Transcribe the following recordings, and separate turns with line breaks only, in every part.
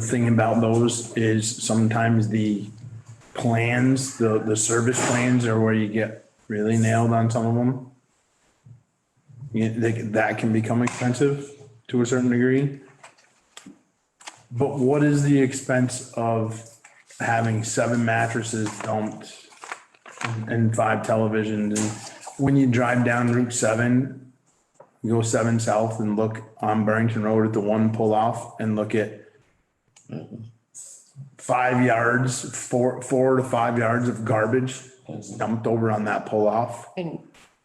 The Thing about those is sometimes the plans, the, the service plans are where you get really nailed on some of them. You, they, that can become expensive to a certain degree. But what is the expense of having seven mattresses dumped and five televisions? And when you drive down Route seven, you go seven south and look on Barrington Road at the one pull off and look at five yards, four, four to five yards of garbage dumped over on that pull off.
And,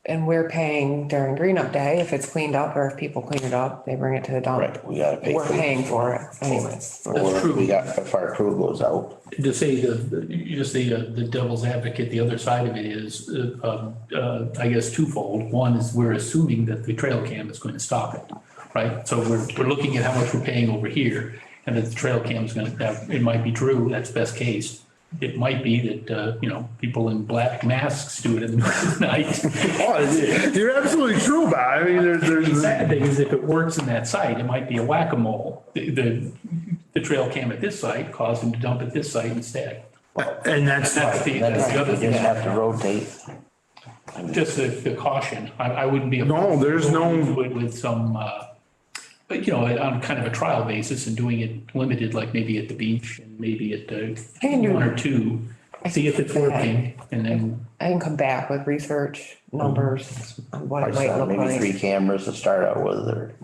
and we're paying during green up day, if it's cleaned up or if people clean it up, they bring it to the dump.
Right, we gotta pay.
We're
for it.
paying for it anyways.
Or we got, if our crew goes out,
to say the, you just say the the devil's advocate, the other side of it is, uh, um, uh, I guess twofold. One is we're assuming that the trail cam is going to stop it, right? So we're, we're looking at how much we're paying over here and that the trail cam is going to, that, it might be true, that's best case. It might be that, uh, you know, people in black masks do it in the middle of the night.
Oh, you're absolutely true about it. I mean, there's,
The
there's,
sad thing is if it works in that site, it might be a whack-a-mole. The, the, the trail cam at this site caused them to dump at this site instead.
and that's,
That's the,
then
that's the other
we
thing.
just have to rotate.
Just the, the caution, I, I wouldn't be.
No, there's no-
Do it with some, uh, but you know, on kind of a trial basis and doing it limited, like maybe at the beach and maybe at uh,
I can do-
one or two. See if it's working and then,
I can come back with research numbers, on what it might look
Mm-hmm. uh, Maybe
like.
three cameras to start out with, or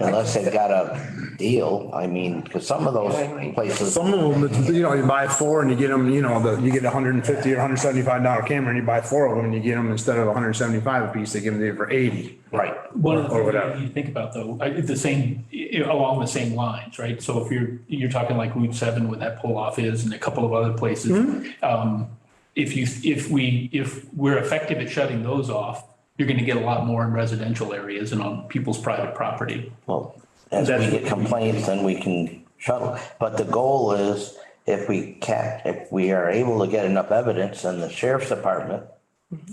unless they've got a deal, I mean, because some of those places.
some of them, it's, you know, you buy four and you get them, you know, the, you get a hundred and fifty or hundred seventy-five dollar camera and you buy four of them and you get them instead of hundred seventy-five a piece, they give them to you for eighty.
Right,
one of
Or
the
whatever.
things you think about though, I- it's the same, you know, along the same lines, right? So if you're, you're talking like Route seven where that pull off is and a couple of other places. Um, if you, if we, if we're effective at shutting those off, you're gonna get a lot more in residential areas and on people's private property.
well, as we get complaints, then we can shuttle, but the goal is if we can, if we are able to get enough evidence in the sheriff's department.
Mm-hmm.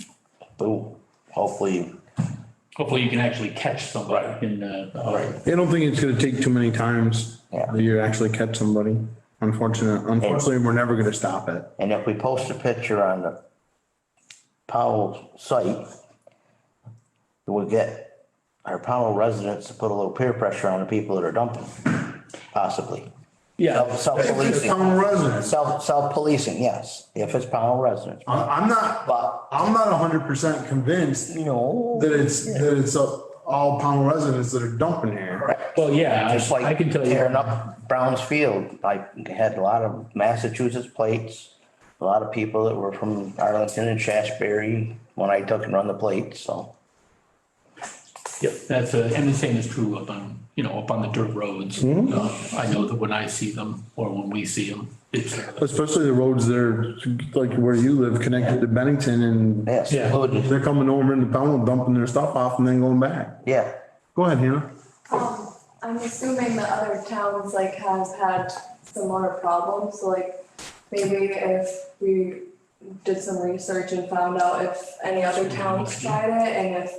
Boom, hopefully,
Hopefully you can actually catch somebody in, uh, uh,
I don't think it's gonna take too many times
Yeah.
that you actually catch somebody. Unfortunately, unfortunately, we're never gonna stop it.
And if we post a picture on the Powell site, we'll get our Powell residents to put a little peer pressure on the people that are dumping, possibly.
yeah.
Self-policing.
Town residents.
Self, self-policing, yes, if it's Powell residents.
I'm, I'm not,
But,
I'm not hundred percent convinced
you know,
that it's, that it's uh, all pound residents that are dumping here.
Well, yeah,
just
I- I
like
can tell you,
tearing up Brown's Field, I had a lot of Massachusetts plates, a lot of people that were from Arlington and Shasberry when I took and run the plates, so.
yeah, that's, uh, and the same is true up on, you know, up on the dirt roads. Uh, I know that when I see them or when we see them, it's. uh,
Especially the roads there, like where you live, connected to Bennington and
Yes,
Yeah.
including,
they're coming over into pound, dumping their stuff off and then going back.
yeah.
Go ahead, Hannah.
Um, I'm assuming that other towns like have had similar problems, so like maybe if we did some research and found out if any other towns tried it and if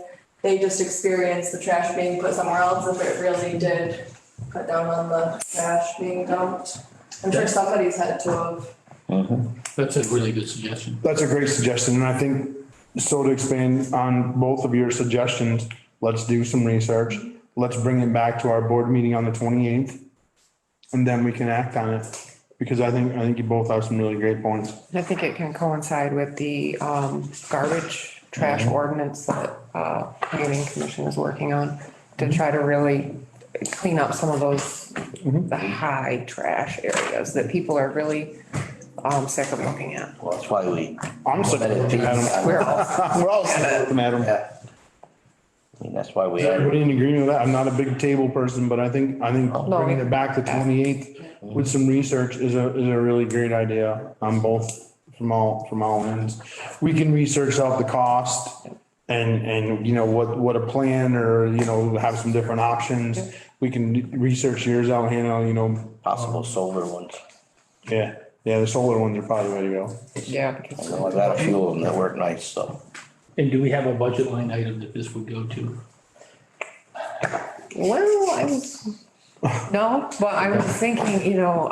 they just experienced the trash being put somewhere else, if it really did put down on the trash being dumped. I'm sure somebody's had to have.
That's a really good suggestion.
That's a great suggestion, and I think, so to expand on both of your suggestions, let's do some research. Let's bring it back to our board meeting on the twenty-eighth, and then we can act on it. Because I think, I think you both have some really great points.
I think it can coincide with the, um, garbage
Mm-hmm.
trash ordinance that, uh, planning commission is working on
Mm-hmm.
to try to really clean up some of those,
Mm-hmm.
the high trash areas that people are really, um, sick of looking at.
Well, that's why we.
I'm sick of looking at 'em.
We're all
We're all sick of looking at 'em.
Yeah. I mean, that's why we
Is
are,
Everybody in agreement with that? I'm not a big table person, but I think, I think bringing it back to twenty-eighth with some research is a, is a really great idea on both, from all, from all ends. We can research out the cost and, and, you know, what, what a plan or, you know, have some different options. We can research yours out, Hannah, you know,
possible solar ones.
yeah, yeah, the solar ones are probably the way to go.
Yeah,
I
because
know I got a few of them that work nice, so.
And do we have a budget line item that this would go to?
Well, I was, No, but I was thinking, you know,